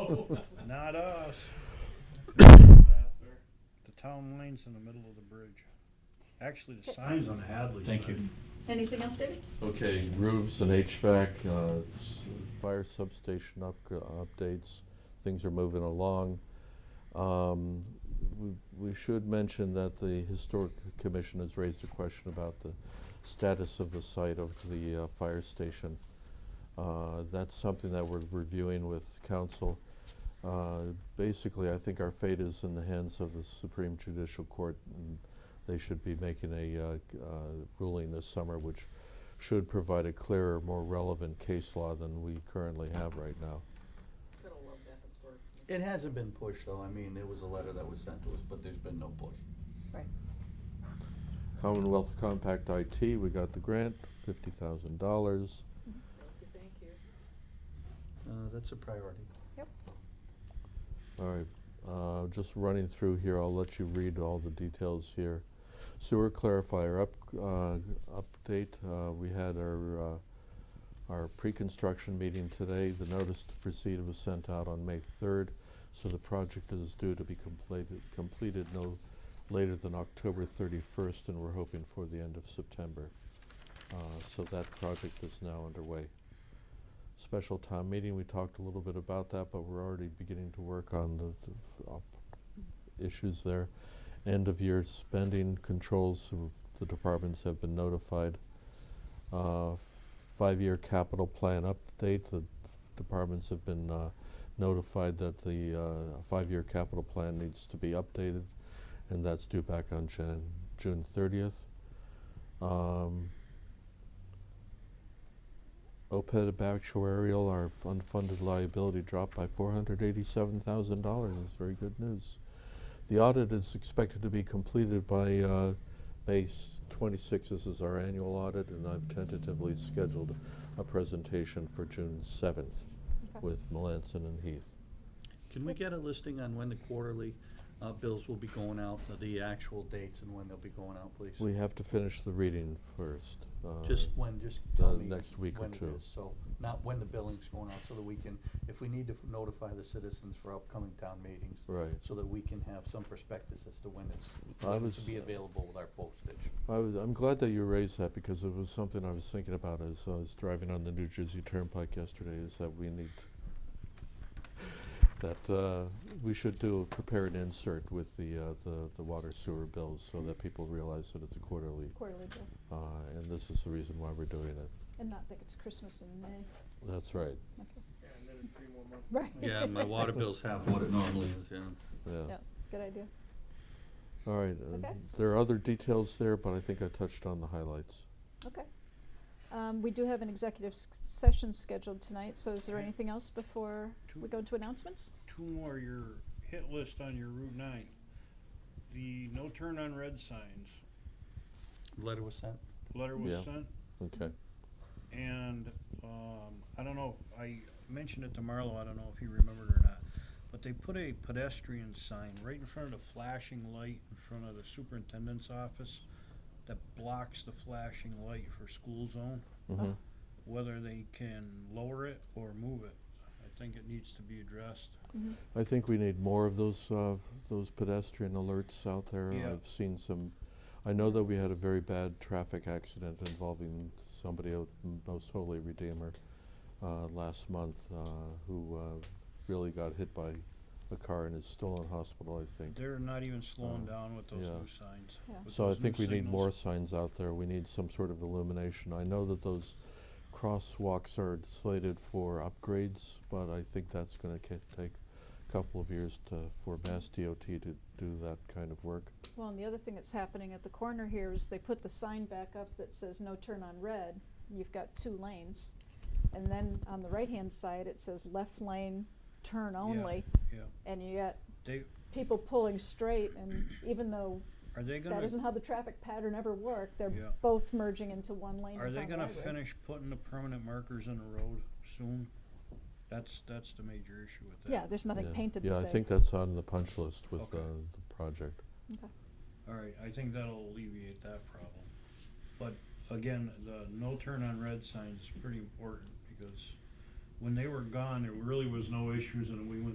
No, not us. The town lane's in the middle of the bridge. Actually, the sign's on Hadley side. Thank you. Anything else, David? Okay, roofs and HVAC, uh, s- fire substation up, uh, updates, things are moving along. Um, we, we should mention that the historic commission has raised a question about the status of the site of the uh, fire station. Uh, that's something that we're reviewing with council. Uh, basically, I think our fate is in the hands of the Supreme Judicial Court, and they should be making a uh, c- uh, ruling this summer, which should provide a clearer, more relevant case law than we currently have right now. Gotta love that historic. It commission. hasn't been pushed, though. I mean, there was a letter that was sent to us, but there's been no push. Right. Commonwealth Compact IT, we got the grant, fifty thousand dollars. Thank you, thank you. Uh, that's a priority. All right, uh, just running through here, I'll let you read all the details here. Sewer clarifier up, uh, update, uh, we had our, uh, our pre-construction meeting today. The notice to proceed was sent out on May third, so the project is due to be completed, completed no later than October thirty-first, and we're hoping for the end of September. Uh, so that project is now underway special town meeting, we talked a little bit about that, but we're already beginning to work on the, the f- op- issues there. End of year spending controls, so the departments have been notified. Uh, f- five-year capital plan update, the departments have been, uh, notified that the, uh, five-year capital plan needs to be updated, and that's due back on Jan, June thirtieth. Um, OPEB actuarial, our f- unfunded liability dropped by $487,000. That's very good news. The audit is expected to be completed by uh, May s- 26. This is our annual audit, and I've tentatively scheduled a presentation for June 7th Okay. with Melanson and Heath. Can we get a listing on when the quarterly uh, bills will be going out, uh, the actual dates and when they'll be going out, please? We have to finish the reading first. uh, Just when, just the tell me. next week or when it two. is, So, not when the billing's going out, so that we can, if we need to f- notify the citizens for upcoming town meetings. Right. So that we can have some perspectives as to when it's, I when it's was- be available with our postage. I was, I'm glad that you raised that because it was something I was thinking about as I was driving on the New Jersey Turnpike yesterday. Is that we need that uh, we should do prepare an insert with the uh, the, the water sewer bills so that people realize that it's a quarterly, Quarterly bill, uh, and this is the reason why we're doing it. and not think it's Christmas in May. That's right. Okay. Yeah, and then in three more months. Right. water bill's half what it normally is, yeah. Yeah. Yeah, good idea. All right. Uh, Okay. There are other details there, but I think I touched on the highlights. Okay. Um, we do have an executive s- session scheduled tonight, so is there anything else before we go into announcements? Two more, your hit list on your Route nine. The no turn on red signs, Letter was sent. letter Yeah. was sent, Okay. and, um, I don't know, I mentioned it to Marlo, I don't know if he remembered or not. But they put a pedestrian sign right in front of the flashing light in front of the superintendent's office that blocks the flashing light for school zone. hmm whether they can lower it or move it. I think it needs to be addressed. I think we need more of those, uh, those pedestrian alerts out there. Yeah. I've seen some, I know that we had a very bad traffic accident involving somebody out in Most Holy Redeemer, uh, last month, uh, who, uh, really got hit by a car and is still in hospital, I think. They're not even slowing Uh, down with those yeah. new signs. Yeah. with So I those new think we need signals. more signs out there. We need some sort of illumination. I know that those crosswalks are slated for upgrades, but I think that's gonna ca- take a couple of years to, for Mass DOT to do that kind of work. Well, and the other thing that's happening at the corner here is they put the sign back up that says no turn on red. You've got two lanes. And then on the right-hand side, it says left lane, turn only. yeah. And you got They, people pulling straight and even though are they that gonna, isn't how the traffic pattern ever worked, they're Yeah. both merging into one lane. are in they front of gonna my road. finish putting the permanent markers in the road soon? That's, that's the major issue with that. Yeah, there's nothing Yeah. painted to say. Yeah, I think that's on the punch list with Okay. uh, the project. Okay. All right, I think that'll alleviate that problem. But again, the no turn on red signs is pretty important because when they were gone, there really was no issues and we went